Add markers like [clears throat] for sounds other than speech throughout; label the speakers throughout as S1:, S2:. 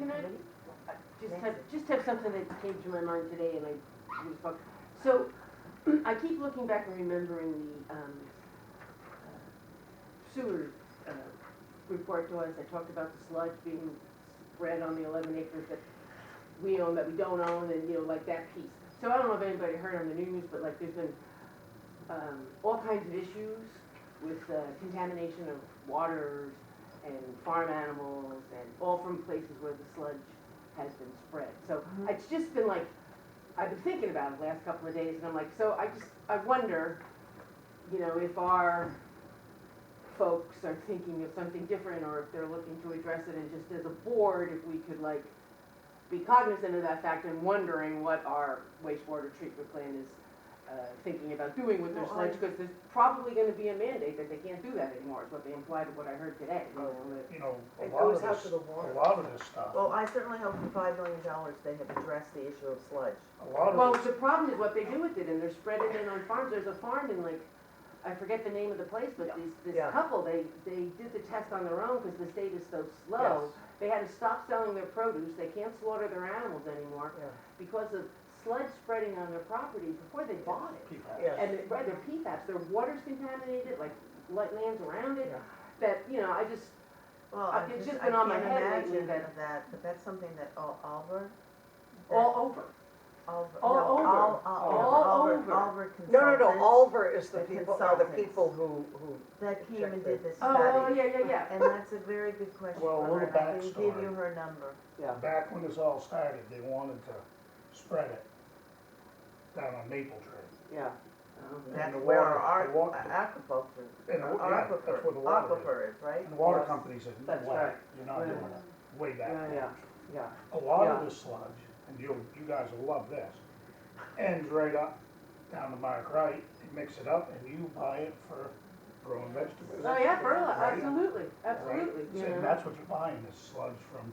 S1: Lynn? I Just have, just have something that came to my mind today and I was talking. So [clears throat] I keep looking back and remembering the um, uh, sewer uh, report to us. I talked about the sludge being spread on the 11 acres that we own, that we don't own, and, you know, like that piece. So I don't know if anybody heard on the news, but like there's been um, all kinds of issues with uh, contamination of waters and farm animals and all from places where the sludge has been spread. So
S2: Mhm.
S1: it's just been like, I've been thinking about it the last couple of days and I'm like, so I just, I wonder, you know, if our folks are thinking of something different or if they're looking to address it and just as a board, if we could like be cognizant of that fact and wondering what our wastewater treatment plan is uh, thinking about doing with their
S2: Well,
S1: sludge,
S2: I-
S1: because there's probably gonna be a mandate that they can't do that anymore, is what they implied of what I heard today. you
S2: Oh,
S1: know, that-
S3: you know, a
S4: It
S3: lot of
S4: goes out
S3: this,
S4: to
S3: a
S4: the water.
S3: lot of this stuff,
S2: Well, I certainly hope for five million dollars they have addressed the issue of sludge.
S3: a lot
S1: Well,
S3: of this,
S1: the problem is what they do with it, and they're spreading it on farms, there's a farm in like, I forget the name of the place, but this, this
S2: Yeah.
S1: couple, they, they did the test on their own, because the state is so slow. They had to stop selling their produce, they can't slaughter their animals anymore,
S4: Yeah.
S1: because of sludge spreading on their property before they bought it.
S3: people.
S4: Yes.
S1: And it- right, their PFAS, their water's contaminated, like, like lands around it,
S4: Yeah.
S1: that, you know, I just,
S2: Well,
S1: Uh,
S2: I
S1: it's
S2: just,
S1: just
S2: I
S1: been on my
S2: can't
S1: head lately
S2: imagine
S1: that-
S2: that, but that's something that all, Albert?
S1: all over.
S2: Albert,
S1: all
S2: no,
S1: over.
S2: Al- Al- no,
S1: All
S2: Albert-
S1: over.
S2: Albert
S4: No, no, no,
S2: Consultants
S4: Alver is the
S2: The
S4: people, are the
S2: consultants.
S4: people who, who,
S2: That came and did this
S1: Oh, oh,
S2: study.
S1: yeah, yeah, yeah.
S2: And that's a very good question
S3: Well, a
S2: for her, and
S3: little
S2: I can give
S3: backstory.
S2: you her number.
S4: yeah.
S3: Back when this all started, they wanted to spread it down on Maple Tree.
S4: Yeah,
S1: Oh,
S2: That's
S3: the
S2: where
S3: water,
S2: our
S3: the water.
S2: aquaculture,
S3: And, the wa- yeah,
S2: our
S3: that's where the
S2: aquifer,
S3: water is.
S2: aquifer is, right?
S3: And the water
S4: Yes.
S3: company said, no
S4: That's
S3: way,
S4: right.
S3: you're not doing it, way back
S4: yeah,
S3: then.
S4: yeah, yeah.
S3: A lot
S4: Yeah.
S3: of this sludge, and you, you guys will love this, ends right up down to Mark Wright, you mix it up and you buy it for growing vegetables.
S1: Oh, yeah, fertile,
S3: Right.
S1: absolutely,
S3: Right?
S1: absolutely, you
S3: And
S1: know,
S3: that's what you're buying, is sludge from,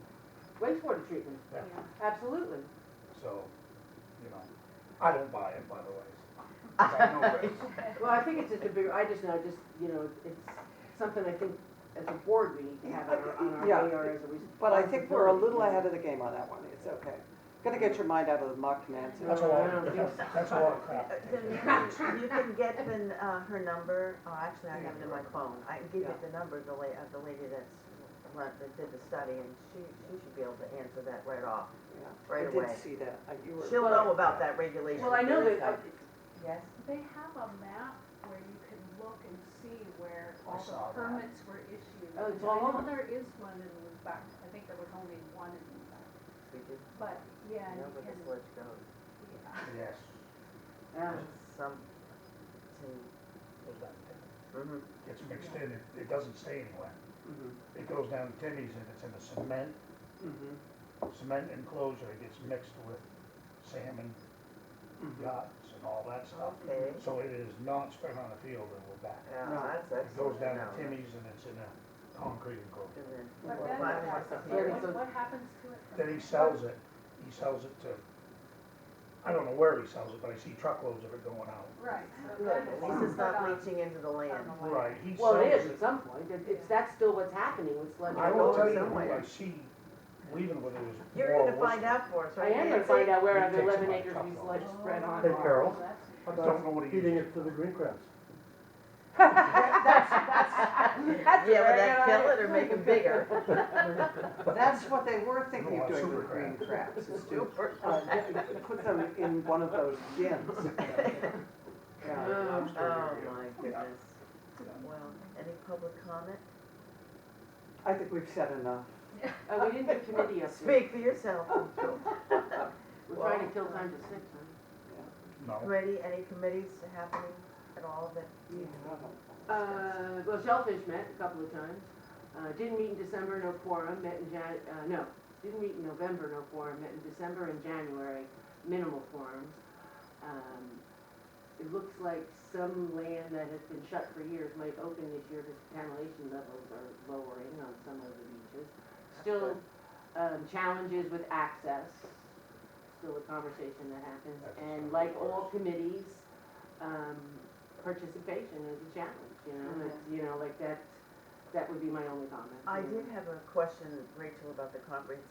S1: wastewater treatment,
S3: yeah,
S1: absolutely.
S3: so, you know, I don't buy it, by the way. 'cause I know this.
S1: Well, I think it's just a bigger, I just know, just, you know, it's something I think as a board we need to have on our, on our
S4: Yeah.
S1: radar as a responsibility.
S4: But I think we're a little ahead of the game on that one, it's okay. Gonna get your mind out of the muck, Nancy.
S3: That's a lot, of- that's, [laughs] that's a lot of
S2: Uh,
S3: crap.
S2: then maybe You can get the, uh, her number, oh, actually, I have it in my phone, I can give you the number, the la, uh, the lady that's, that did the study, and she, she should be able to answer that right off,
S4: Yeah.
S2: right
S4: I
S2: away.
S4: did see that, I- you were.
S2: She'll know about that regulation.
S1: Well, I know
S2: There is
S1: that, uh, I,
S2: one. Yes,
S5: They have a map where you can look and see where
S3: I
S5: all
S3: saw that.
S5: the permits were issued.
S1: Oh, it's
S5: I
S1: all
S5: know
S1: on.
S5: There is one in Lubec, I think there was only one in Lubec,
S2: we do
S5: but, yeah,
S2: know
S5: you
S2: where
S5: can,
S2: the sludge goes,
S5: yeah.
S3: Yes.
S1: yeah,
S2: some,
S3: goes down to Timmy's.
S2: to, mhm.
S3: Gets mixed in, it, it doesn't stay anywhere.
S4: Mhm,
S3: It goes down to Timmy's and it's in a cement,
S4: mhm,
S3: cement enclosure, it gets mixed with salmon
S4: mhm.
S3: guts and all that stuff.
S2: okay,
S3: So it is not spread on the field and we're back.
S2: yeah,
S4: No.
S2: that's
S3: It
S2: excellent.
S3: goes down
S2: No,
S3: to Timmy's and it's in a concrete enclosure.
S2: and then-
S5: But
S2: Well,
S5: then,
S2: five
S5: that's-
S2: bucks a
S1: year.
S5: what, what happens to it? from
S3: Then he
S5: there?
S3: sells it, he sells it to, I don't know where he sells it, but I see truckloads of it going out.
S5: Right. so
S2: Good,
S5: then
S2: at
S5: it's
S2: least it's
S5: put
S2: not
S1: uh,
S5: on-
S2: leaching into the
S5: on
S2: land.
S5: the land.
S3: Right, he
S1: well,
S3: sells
S2: mm-hmm,
S1: it is
S3: it.
S1: at some point, It- it's, that's still what's happening with sludge.
S3: I will tell you who
S2: somewhere.
S3: I see leaving with it is
S2: You're
S3: Laura
S2: gonna find
S3: Wilson.
S2: out for us,
S1: I
S2: right?
S1: am gonna find out where
S3: It
S1: I've
S3: takes
S1: eleven
S3: about a
S1: acres
S3: couple
S1: of
S3: of
S1: sludge
S3: hours.
S1: spread on.
S6: Hey, Carol.
S5: Oh, that's-
S3: Don't know what he
S6: Feeding
S3: uses.
S6: it to the green crabs.
S1: [laughs] That's, that's, that's a
S2: Yeah, would
S1: very good
S2: that kill it
S1: idea.
S2: or make them bigger?
S4: That's what they were thinking
S3: No,
S4: of doing
S3: super
S4: with green crabs, is to,
S2: [laughs] Super.
S4: uh, get- put them in one of those [laughs] bins. Yeah.
S1: Oh,
S2: Oh,
S3: Yeah.
S2: my goodness. Well, any public comment?
S4: I think we've said enough.
S1: Oh, we didn't do committee up there.
S2: Speak for yourself.
S1: We're trying to kill time to six, huh?
S2: oh.
S3: No,
S2: Ready, any committees happening at all that? you-
S1: Uh, well, Shellfish met a couple of times. Uh, didn't meet in December, no quorum, met in Jan, uh, no, didn't meet in November, no quorum, met in December and January, minimal quorums. Um, it looks like some land that has been shut for years might open this year because contamination levels are lowering on some of the beaches. Still, um, challenges with access, still a conversation that happens.
S3: That's
S1: And
S3: something
S1: like
S3: worse.
S1: all committees, um, participation is a challenge, you know, it's, you know, like that, that would be my only comment.
S2: I
S1: you know.
S2: did have a question, Rachel, about the comprehensive